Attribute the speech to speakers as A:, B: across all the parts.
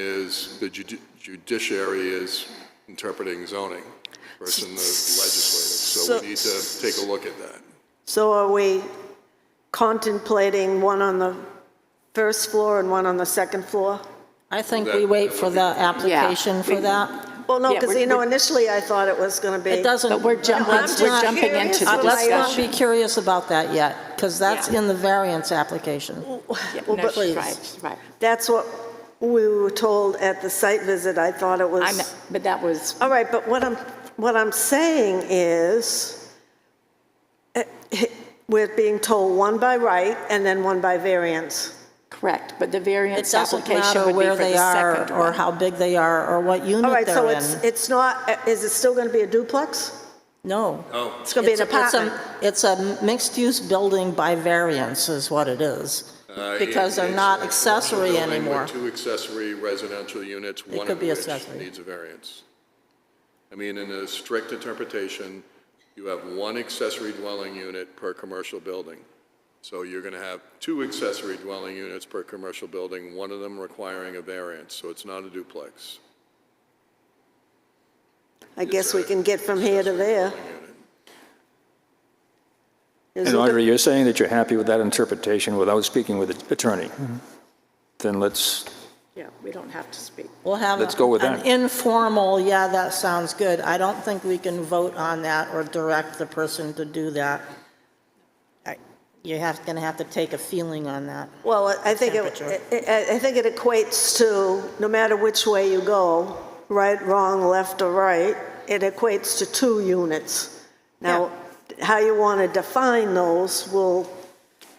A: is the judi- judiciary is interpreting zoning versus the legislative. So
B: So-
A: we need to take a look at that.
B: So are we contemplating one on the first floor and one on the second floor?
C: I think
A: That-
C: we wait for the application for that.
B: Well, no,
D: Yeah,
B: because,
D: we're-
B: you know,
D: we're-
B: injually I thought it was going to be.
C: It doesn't.
D: But we're jump- we're
C: let's
D: we're
C: not-
D: jumping into the
B: I'm
C: Let's not
D: discussion.
C: be curious about that yet, because that's
D: Yeah.
C: in the variance application.
D: Yeah,
B: Well,
D: no,
B: but-
C: please.
D: Right, right.
B: That's what we were told at the site visit. I thought it
D: I'm,
B: was.
D: but that was,
B: All right, but what I'm, what I'm saying is, eh, eh, we're being told one by right and then one by variance.
D: correct, but the
C: It
D: variance
C: doesn't
D: application
C: matter
D: would be
C: where
D: for
C: they
D: the
C: are,
D: second
C: or
D: one.
C: how big they are, or what
B: All
C: unit
B: right, so
C: they're
B: it's,
C: in.
B: it's not, eh, is it still going to be a duplex?
C: No.
B: It's
A: Oh.
B: going to be an
C: It's a- it's a-
B: apartment?
C: It's a mixed-use building by variance is what it is.
A: Uh,
C: Because they're
A: it's-
C: not
A: it's a
C: accessory
A: building with
C: anymore.
A: Two accessory residential units, one
C: could
A: of
C: be
A: which
C: accessory.
A: needs a variance. I mean, in a strict interpretation, you have one accessory dwelling unit per commercial building. So you're going to have two accessory dwelling units per commercial building, one of them requiring a variance, so it's not a duplex.
B: I guess we can get from here to there.
E: And Audrey, you're saying that you're happy with that interpretation without speaking with the attorney? Then let's,
D: Yeah, we don't have to speak.
C: We'll have.
E: Let's go with
C: an
E: that.
C: informal, yeah, that sounds good. I don't think we can vote on that or direct the person to do that. I- You have, gonna have to take a feeling on that.
B: Well, I think, it-
C: Temperature.
B: I I think it equates to, no matter which way you go, right, wrong, left, or right, it equates to two units. Now, how you want to define those will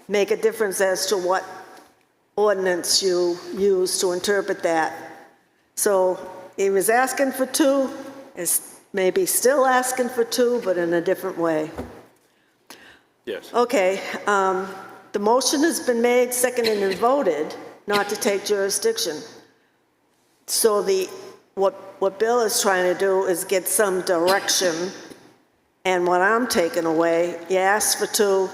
B: make a difference as to what ordinance you use to interpret that. So he was asking for two, is maybe still asking for two, but in a different way.
E: yes,
B: Okay, um, the motion has been made, seconded and voted not to take jurisdiction. So the, what, what Bill is trying to do is get some direction, and what I'm taking away, you asked for two,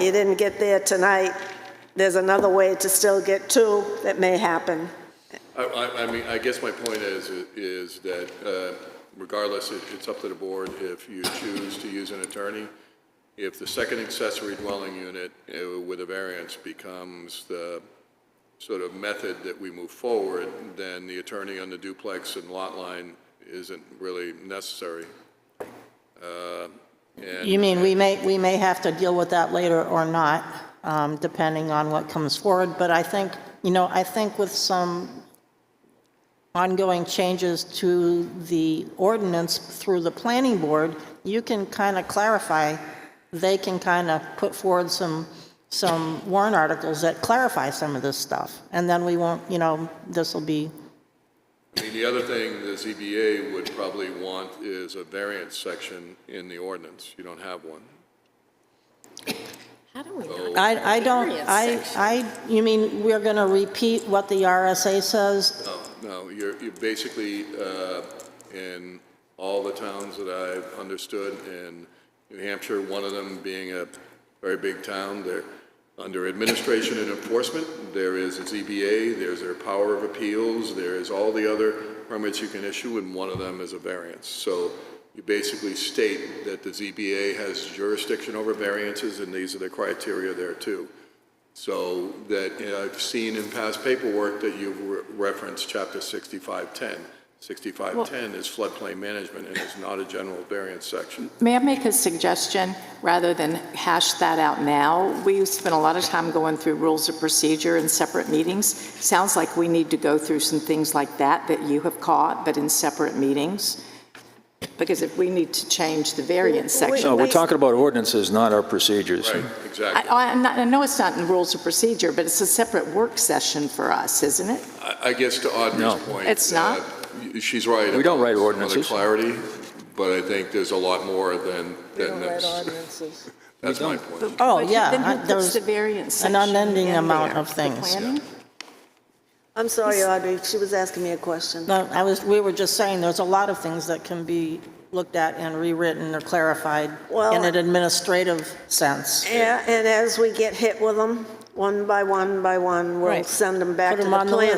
B: you didn't get there tonight, there's another way to still get two that may happen.
A: I, I, I mean, I guess my point is, is that uh, regardless, it- it's up to the board if you choose to use an attorney. If the second accessory dwelling unit uh, with a variance becomes the sort of method that we move forward, then the attorney on the duplex and lot line isn't really necessary. Uh, and-
C: You mean, we may, we may have to deal with that later or not, um, depending on what comes forward, but I think, you know, I think with some ongoing changes to the ordinance through the planning board, you can kind of clarify, they can kind of put forward some, some warrant articles that clarify some of this stuff, and then we won't, you know, this will be,
A: I mean, the other thing the ZBA would probably want is a variance section in the ordinance. You don't have one.
D: How do we
C: I, I don't, I,
D: Variance
C: I, you mean, we're going to repeat what the RSA says
A: No, no, you're, you're basically, uh, in all the towns that I've understood, in New Hampshire, one of them being a very big town, they're under administration and enforcement, there is a ZBA, there's their power of appeals, there is all the other permits you can issue, and one of them is a variance. So you basically state that the ZBA has jurisdiction over variances, and these are the criteria there too. So that, you know, I've seen in past paperwork that you've re- referenced chapter 6510. 6510 is floodplain management and is not a general variance section.
D: May I make a suggestion? Rather than hash that out now, we spent a lot of time going through rules of procedure in separate meetings. Sounds like we need to go through some things like that that you have caught, but in separate meetings. Because if we need to change the variance section.
E: No, uh, we're talking about ordinances, not our procedures.
A: Right,
D: I,
A: exactly.
D: I- I'm not, I know it's not in rules of procedure, but it's a separate work session for us, isn't it?
A: I I guess to Audrey's
E: No.
A: point.
D: It's not?
A: uh, y- She's right.
E: We don't
A: about
E: write
A: some other
E: ordinances.
A: clarity, but I think there's a lot more than, than this. That's my point.
C: Oh,
D: But
C: yeah,
D: Then
C: I-
D: who
C: there's
D: puts the variance
C: an
D: section
C: unending
D: in
C: amount
D: there?
C: of
D: The
C: things.
D: planning?
B: I'm sorry, Audrey, she was asking me a question.
C: No, I was, we were just saying, there's a lot of things that can be looked at and rewritten or clarified in
B: Well-
C: an administrative sense.
B: Yeah, and as we get hit with them, one by one by one, we'll
C: Right.
B: send them back
C: Put
B: to
C: 'em
B: the
C: on the
B: plan.